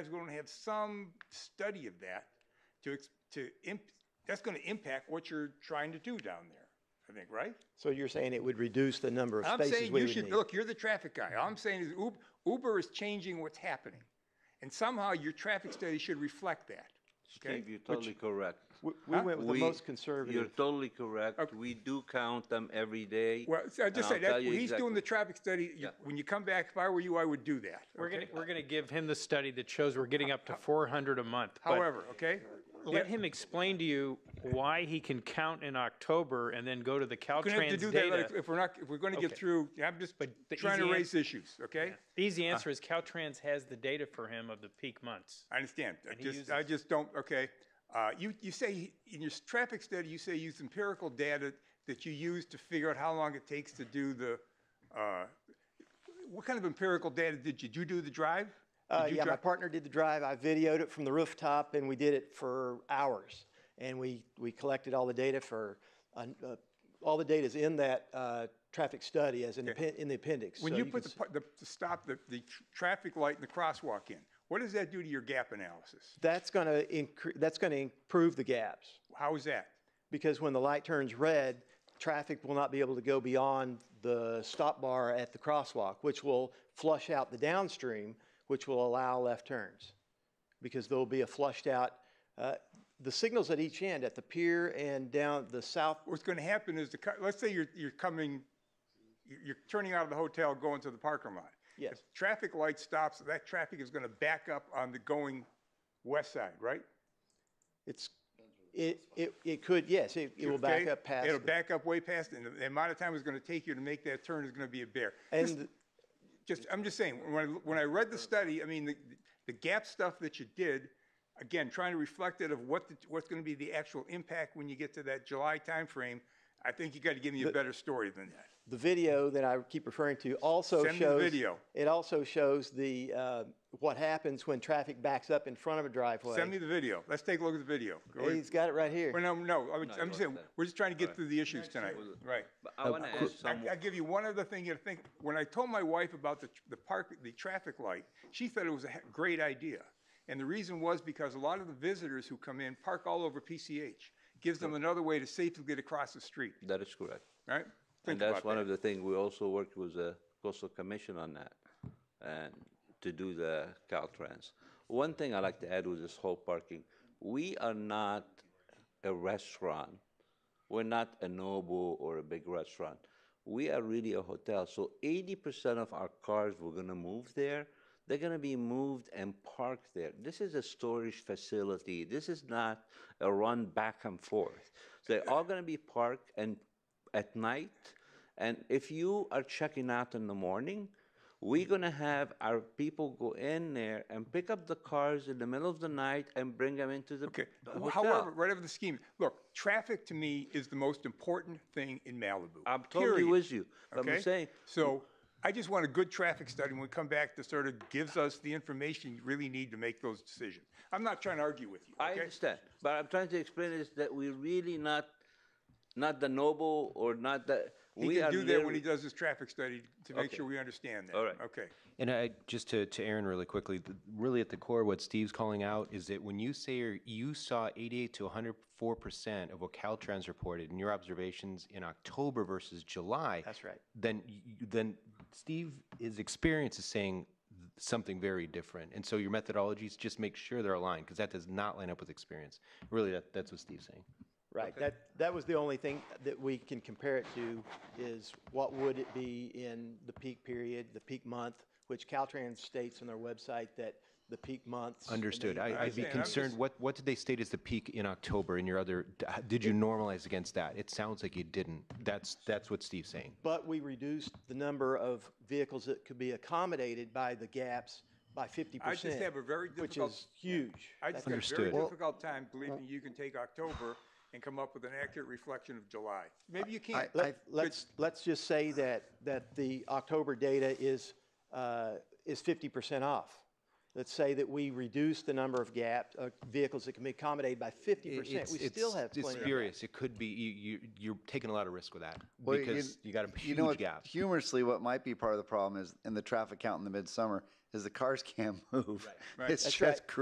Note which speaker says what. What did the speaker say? Speaker 1: is going to have some study of that to, ex- to, imp- that's going to impact what you're trying to do down there, I think, right?
Speaker 2: So you're saying it would reduce the number of
Speaker 1: I'm
Speaker 2: spaces
Speaker 1: saying
Speaker 2: we
Speaker 1: you
Speaker 2: would
Speaker 1: should,
Speaker 2: need?
Speaker 1: look, you're the traffic guy. All I'm saying is Uber, Uber is changing what's happening. And somehow your traffic study should reflect that. Okay?
Speaker 3: Steve, you're totally correct.
Speaker 2: We we went with the
Speaker 3: We-
Speaker 2: most
Speaker 3: You're
Speaker 2: conservative.
Speaker 3: totally correct. We do count them every day.
Speaker 1: Well, so I
Speaker 3: and
Speaker 1: just
Speaker 3: I'll
Speaker 1: said,
Speaker 3: tell
Speaker 1: that,
Speaker 3: you
Speaker 1: he's doing
Speaker 3: exactly-
Speaker 1: the traffic study. You- When you come back, if I were you, I would do that.
Speaker 4: We're gonna, we're gonna give him the study that shows we're getting up to four hundred a month. but
Speaker 1: However, okay?
Speaker 4: Let him explain to you why he can count in October and then go to the
Speaker 1: We're gonna have to
Speaker 4: Caltrans
Speaker 1: do that like,
Speaker 4: data.
Speaker 1: if we're not, if we're going to get
Speaker 4: Okay.
Speaker 1: through, I'm just
Speaker 4: the
Speaker 1: trying to
Speaker 4: easy an-
Speaker 1: raise issues, okay?
Speaker 4: Easy
Speaker 1: Uh.
Speaker 4: answer is Caltrans has the data for him of the peak months.
Speaker 1: I understand. I
Speaker 4: he
Speaker 1: just, I
Speaker 4: uses-
Speaker 1: just don't, okay. Uh, you, you say, in your s- traffic study, you say you use empirical data that you use to figure out how long it takes to do the, uh, what kind of empirical data did you, did you do the drive?
Speaker 2: Uh,
Speaker 1: Did you
Speaker 2: yeah, my
Speaker 1: drive-
Speaker 2: partner did the drive. I videoed it from the rooftop and we did it for hours. And we, we collected all the data for, uh, uh, all the data's in that, uh, traffic study as an appen- in the appendix.
Speaker 1: When
Speaker 2: so
Speaker 1: you
Speaker 2: can
Speaker 1: put the,
Speaker 2: s-
Speaker 1: pa- the, the stop, the, the tr- traffic light and the crosswalk in, what does that do to your gap analysis?
Speaker 2: That's gonna incre, that's gonna improve the gaps.
Speaker 1: How is that?
Speaker 2: because when the light turns red, traffic will not be able to go beyond the stop bar at the crosswalk, which will flush out the downstream, which will allow left turns. Because there'll be a flushed out, uh, the signals at each end, at the pier and down the south,
Speaker 1: What's gonna happen is the, cu- let's say you're, you're coming, you're, you're turning out of the hotel, going to the parking lot.
Speaker 2: yes,
Speaker 1: If Traffic light stops, that traffic is gonna back up on the going west side, right?
Speaker 2: it's, it, it, it could, yes, it, it will back
Speaker 1: Okay?
Speaker 2: up past.
Speaker 1: It'll
Speaker 2: the-
Speaker 1: back up way past, and the- the amount of time it's gonna take you to make that turn is gonna be a bear. This-
Speaker 2: And
Speaker 1: Just, I'm just saying, when I, when I read the study, I mean, the, the gap stuff that you did, again, trying to reflect it of what, the- what's gonna be the actual impact when you get to that July timeframe, I think you gotta give me a better story than that.
Speaker 2: the video that I keep referring to also
Speaker 1: Send me the
Speaker 2: shows.
Speaker 1: video.
Speaker 2: It also shows the, uh, what happens when traffic backs up in front of a driveway.
Speaker 1: Send me the video. Let's take a look at the video. Go
Speaker 2: Hey,
Speaker 1: ahead.
Speaker 2: He's got it right here.
Speaker 1: Well, no, no, I'm, I'm just saying,
Speaker 3: that.
Speaker 1: we're just trying to get through the issues tonight, right?
Speaker 3: But I want to ask
Speaker 1: I,
Speaker 3: some,
Speaker 1: I give you one other thing to think, when I told my wife about the, the park, the traffic light, she thought it was a he- great idea. And the reason was because a lot of the visitors who come in park all over PCH, gives them another way to safely get across the street,
Speaker 3: that is correct.
Speaker 1: right?
Speaker 3: And
Speaker 1: Think
Speaker 3: that's
Speaker 1: about
Speaker 3: one
Speaker 1: that.
Speaker 3: of the things, we also worked with the coastal commission on that, and to do the Caltrans. One thing i like to add with this whole parking, we are not a restaurant. We're not a Nobu or a big restaurant. We are really a hotel, so eighty percent of our cars we're gonna move there, they're gonna be moved and parked there. This is a storage facility, this is not a run back and forth. They're all gonna be parked and at night, and if you are checking out in the morning, we're gonna have our people go in there and pick up the cars in the middle of the night and bring them into the
Speaker 1: Okay,
Speaker 3: the
Speaker 1: Wh-
Speaker 3: hotel.
Speaker 1: however, whatever the scheme, look, traffic to me is the most important thing in Malibu.
Speaker 3: I'm totally
Speaker 1: period.
Speaker 3: with you, but
Speaker 1: Okay?
Speaker 3: I'm saying,
Speaker 1: So I just want a good traffic study when we come back that sort of gives us the information you really need to make those decisions. I'm not trying to argue with you,
Speaker 3: I
Speaker 1: okay?
Speaker 3: understand, but I'm trying to explain is that we're really not, not the noble or not the.
Speaker 1: He
Speaker 3: we
Speaker 1: can
Speaker 3: are
Speaker 1: do that when he
Speaker 3: literally-
Speaker 1: does his traffic study to make
Speaker 3: Okay.
Speaker 1: sure we understand that.
Speaker 3: All right.
Speaker 1: Okay.
Speaker 5: And I, just to, to Aaron really quickly, th- really at the core, what Steve's calling out is that when you say you're- you saw 88 to 104 percent of what Caltrans reported in your observations in October versus July.
Speaker 2: That's right.
Speaker 5: Then, y- y- then Steve, his experience is saying th- something very different. And so your methodologies, just make sure they're aligned because that does not line up with experience. Really, that, that's what Steve's saying.
Speaker 2: Right, that, that was the only thing that we can compare it to is what would it be in the peak period, the peak month, which Caltrans states on their website that the peak months.
Speaker 5: Understood. I, I'd be
Speaker 1: understand. I'm
Speaker 5: concerned,
Speaker 1: just-
Speaker 5: what, what did they state as the peak in October in your other, d- h- did you normalize against that? It sounds like you didn't. That's, that's what Steve's saying.
Speaker 2: But we reduced the number of vehicles that could be accommodated by the gaps by fifty
Speaker 1: I
Speaker 2: percent.
Speaker 1: just have a very
Speaker 2: Which
Speaker 1: difficult.
Speaker 2: is huge.
Speaker 1: I just got a very
Speaker 5: Understood. Well-
Speaker 1: difficult time believing you can take October and come up with an accurate reflection of July. Maybe you can't.
Speaker 2: Let- Let's, let's just say that, that the October data is, uh, is fifty percent off. Let's say that we reduce the number of gap, uh, vehicles that can be accommodated by fifty percent.
Speaker 5: It's-
Speaker 2: We still
Speaker 5: it's-
Speaker 2: have
Speaker 5: It's
Speaker 2: plenty. of-
Speaker 5: spurious. It could be, you, you, you're taking a lot of risk with that
Speaker 6: Well,
Speaker 5: because you got a
Speaker 6: you know
Speaker 5: huge
Speaker 6: what,
Speaker 5: gap.
Speaker 6: Humorously, what might be part of the problem is in the traffic count in the midsummer is the cars can't move. It's
Speaker 1: Right.
Speaker 6: just
Speaker 2: right.
Speaker 6: crazy.